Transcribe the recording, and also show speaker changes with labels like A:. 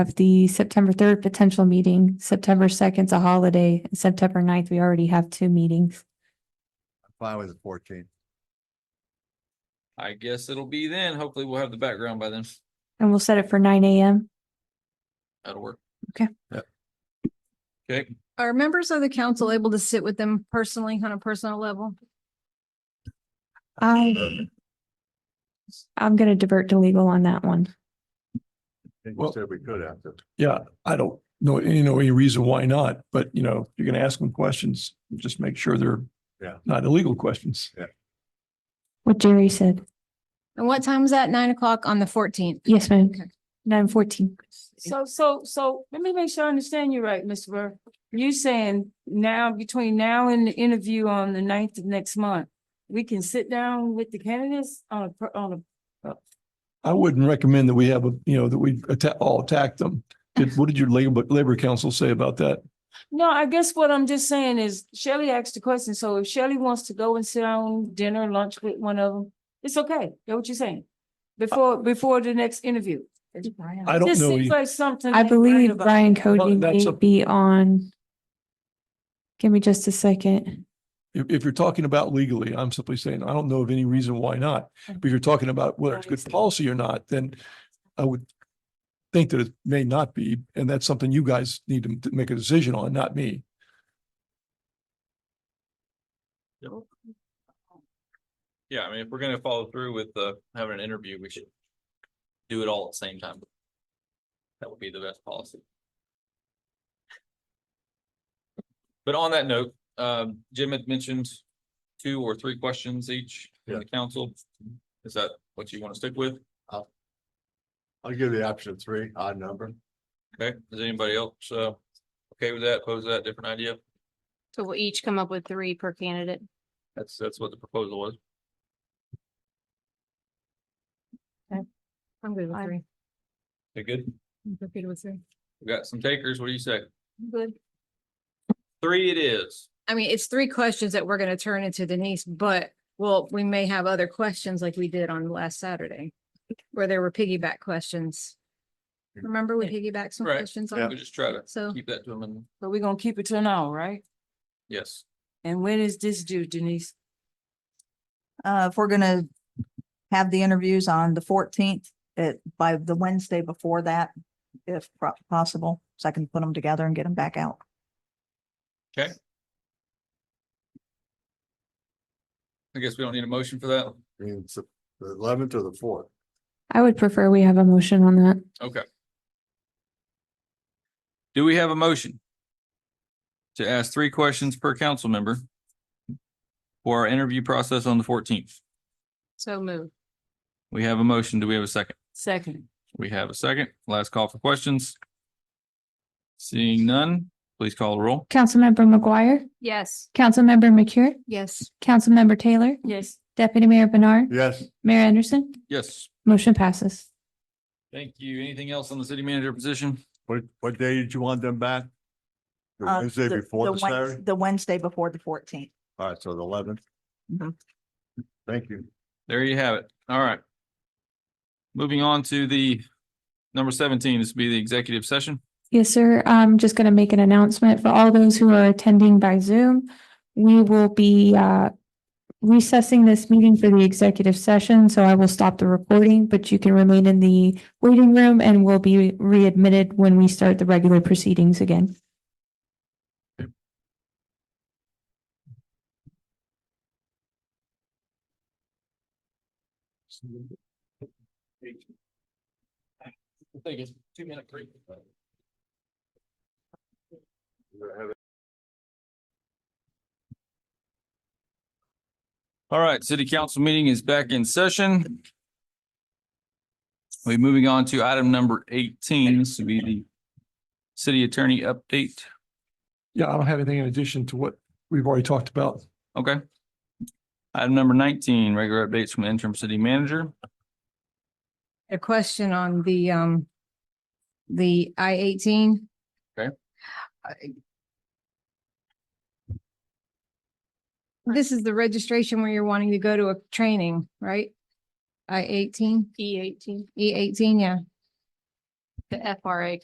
A: have the September third potential meeting, September second's a holiday, and September 9th, we already have two meetings.
B: Fine with the fourteenth.
C: I guess it'll be then. Hopefully we'll have the background by then.
A: And we'll set it for nine AM.
C: That'll work.
A: Okay.
B: Yep.
C: Okay,
D: Are members of the council able to sit with them personally on a personal level?
A: I Um, I'm gonna divert to legal on that one.
B: You
E: Well-
B: said we could have to.
E: Yeah, I don't know, you know, any reason why not, but you know, you're gonna ask them questions, just make sure they're
B: Yeah.
E: not illegal questions.
A: What Jerry said.
D: And what time is that? Nine o'clock on the fourteenth?
A: Yes, ma'am.
D: Okay.
A: Nine fourteen.
F: So, so, so let me make sure I understand you right, Mr. Burr. You saying now, between now and the interview on the ninth of next month, we can sit down with the candidates on a, per- on a,
E: I wouldn't recommend that we have, a you know, that we attack, all attack them. Did, what did your labor, labor council say about that?
F: no, I guess what I'm just saying is Shelley asked the question, so if Shelley wants to go and sit down dinner, lunch with one of them, it's okay. Know what you're saying? Before, before the next interview.
E: I don't
F: This
E: know. e-
F: seems like something.
A: I
F: ain't right
A: believe
F: about-
A: Brian Cody
E: Well, that's
A: may
E: a-
A: be on. Give me just a second.
E: If, if you're talking about legally, I'm simply saying, I don't know of any reason why not. But if you're talking about whether it's good policy or not, then I would think that it may not be, and that's something you guys need to make a decision on, not me.
C: yeah, I mean, if we're gonna follow through with uh having an interview, we should do it all at the same time. That would be the best policy. But on that note, um, Jim had mentioned two or three questions each from the council. Is that what you want to stick with?
B: I'll give you the option of three, odd number.
C: Okay, is anybody else uh okay with that? Pose that different idea?
G: So we'll each come up with three per candidate.
C: That's, that's what the proposal was.
D: I'm good
G: I'm-
D: three.
C: You good?
D: I'm good with three.
C: We got some takers. What do you say?
D: Good.
C: Three it is.
D: I mean, it's three questions that we're gonna turn into Denise, but well, we may have other questions like we did on last Saturday. Where there were piggyback questions. Remember we piggybacked some
C: Right.
D: questions
C: We
D: on?
C: just try to
D: So
C: keep that to them and
F: But we're gonna keep it to an hour, right?
C: yes.
F: And when is this due, Denise?
H: Uh, if we're gonna have the interviews on the fourteenth, it, by the Wednesday before that, if pro- possible, so I can put them together and get them back out.
C: I guess we don't need a motion for that.
B: I mean, it's the eleventh or the fourth.
A: I would prefer we have a motion on that.
C: Okay. Do we have a motion? To ask three questions per council member. For our interview process on the fourteenth.
G: So move.
C: We have a motion. Do we have a second?
F: Second.
C: We have a second. Last call for questions. Seeing none, please call the roll.
A: Councilmember McGuire,
G: Yes.
A: Councilmember McCure,
G: Yes.
A: Councilmember Taylor,
F: Yes.
A: Deputy Mayor Bernard,
B: Yes,
A: Mayor Anderson,
C: Yes.
A: motion passes.
C: Thank you. Anything else on the city manager position?
B: what, what day did you want them back? The
H: Uh,
B: Wednesday before the
H: Wed-
B: Saturday?
H: The Wednesday before the fourteenth.
B: All right, so the eleventh.
H: Mhm.
B: Thank you.
C: There you have it. All right. Moving on to the number seventeen, this will be the executive session.
A: Yes, sir. I'm just going to make an announcement for all those who are attending by Zoom. We will be uh, recessing this meeting for the executive session, so I will stop the recording, but you can remain in the waiting room and will be readmitted when we start the regular proceedings again.
C: Take a two minute break. All right, city council meeting is back in session. We're moving on to item number eighteen, this will be the city attorney update.
E: Yeah, I don't have anything in addition to what we've already talked about.
C: Okay. Item number nineteen, regular updates from the interim city manager.
D: a question on the, um, the I eighteen.
C: Okay.
D: This is the registration where you're wanting to go to a training, right? I eighteen,
G: E eighteen,
D: E eighteen, yeah.
G: the FRA